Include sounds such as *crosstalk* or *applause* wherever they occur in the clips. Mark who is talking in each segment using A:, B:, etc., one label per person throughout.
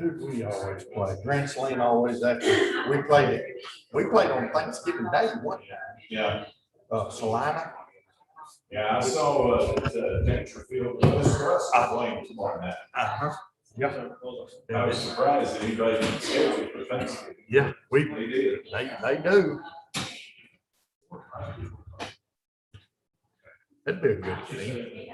A: Who'd we always play?
B: Grants Lane always after, we played it, we played on Thanksgiving Day, what,
A: Yeah,
B: uh, Salina?
A: yeah, I saw, uh, the Dangerfield, I blame him on that.
C: Uh-huh.
A: Yeah. I was surprised that anybody didn't schedule it for Thanksgiving.
C: Yeah, we,
A: They did.
C: they, they do. That'd be a good thing.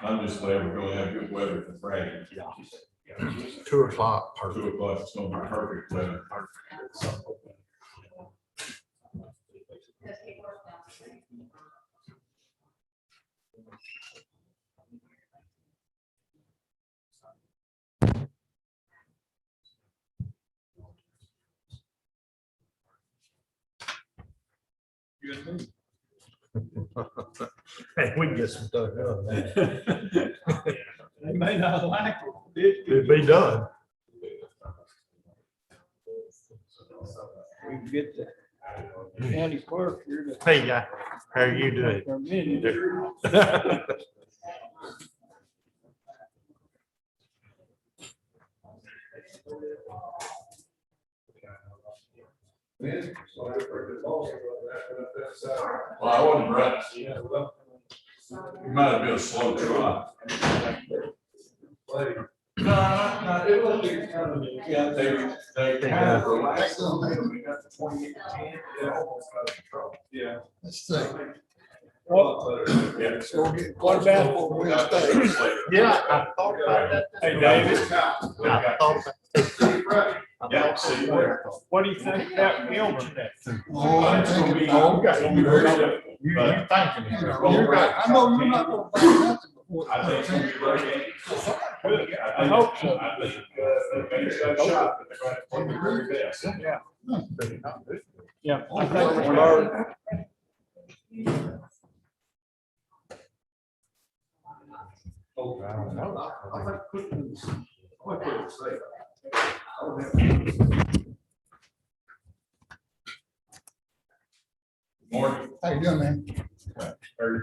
A: I'm just glad we're gonna have good weather for Friday.
C: Yeah. Two o'clock, perfect.
A: Two o'clock, it's gonna be perfect weather.
C: *laughs* Hey, we can get some stuff done. man.
D: They may not like it.
C: It'd be done.
D: We can get the county clerk here to.
C: Hey, guy, how are
B: *laughs*
C: you doing?
D: For a minute.
A: Well, I wasn't right. It might have been a slow drop. No, no, no, it was kind of, yeah, they, they kind of relaxed. a little bit after 28, yeah, almost got in trouble. Yeah.
B: Let's see.
D: What,
A: Yeah.
D: what about for Wednesday?
C: Yeah, I thought about that.
D: Hey, David,
A: David. I
C: Oh,
A: thought-
C: I
A: Yeah,
C: thought
A: see,
C: about
A: we're-
C: that.
D: what do you think about Wilmington?
A: Oh, it's gonna be- it's gonna be very difficult,
C: You, you
A: but
C: thinking. it.
A: You're right.
B: I know you're not gonna buy nothing before.
A: I think it's gonna be very difficult.
D: I hope so.
A: I think, uh, they made a good shot, but they're gonna have to do their very best.
D: Yeah, yeah. I think we're learning.
B: I don't know. I think
A: Morning.
E: How you doing, man?
A: Or-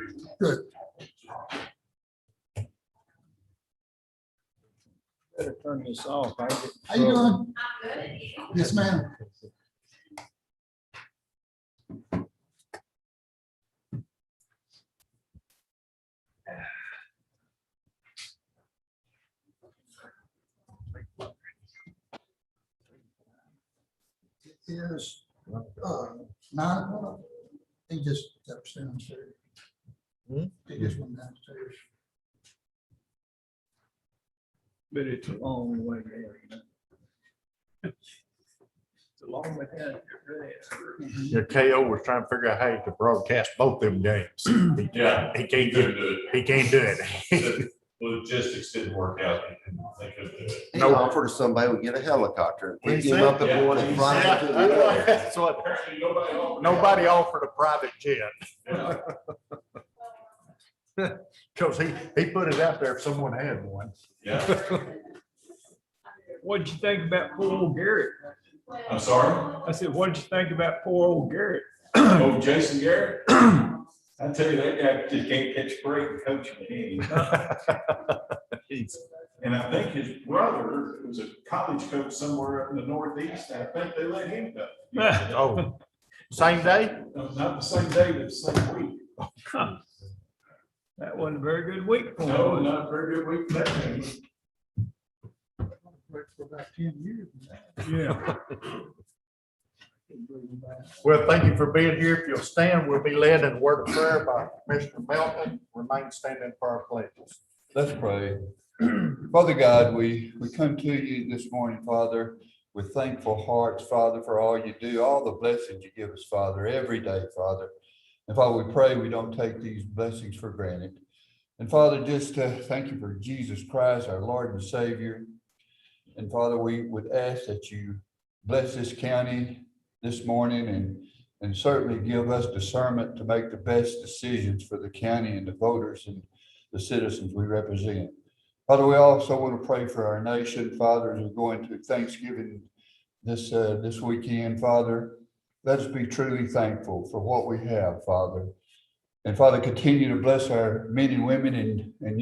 D: Better turn this off. I get-
E: How you doing? Yes, ma'am. It is uh, nine o'clock. He just steps downstairs.
C: Hmm?
E: He just went downstairs.
D: But it's a long way there. you know. It's a long way down.
C: Yeah, KO was trying to figure out how to broadcast both them games. He-
A: Yeah.
C: He can't do it.
A: Couldn't do
C: He can't do it.
A: it. The Logistics didn't work out. They couldn't- They couldn't do it.
F: He
C: No.
F: offered someone would get a helicopter.
C: He
F: We came
C: said-
F: up and brought it
C: Yeah,
F: right to
C: I know.
F: the.
C: That's what-
A: Apparently, nobody. offered.
C: Nobody offered a private jet,
A: Yeah.
C: because he, he put it out there if someone had one.
A: Yeah,
D: What'd you think about poor old Garrett?
A: I'm *clears throat* sorry.
D: I said, what'd you think about poor old Garrett?
A: Oh, Jason Garrett. I tell you, that guy just can't catch a break coaching. He-
C: He's-
A: And I think his brother was a college coach somewhere up in the Northeast. and I think they let him
D: *laughs*
A: go.
C: Oh, same day?
A: No, Not the same day, but the same week.
D: That wasn't a very good week for him.
A: No,
D: was it?
A: not a very good week. that day.
E: Worked for about ten years.
D: Yeah.
C: Well, thank you for being here. If you'll stand, we'll be led in a word of prayer by Commissioner Melton. Remain standing for our pledges.
G: Let's pray. Father God, we, we come to you this morning, Father, with thankful hearts, Father, for all you do, all the blessings you give us, Father, every day, Father. And Father, we pray we don't take these blessings for granted. And Father, just uh, thank you for Jesus Christ, our Lord and Savior. And Father, we would ask that you bless this county this morning and, and certainly give us discernment to make the best decisions for the county and the voters and the citizens we represent. Father, we also want to pray for our nation, Father, as we're going to Thanksgiving this, uh, this weekend, Father. Let us be truly thankful for what we have, Father. And Father, continue to bless our men and women and, and youth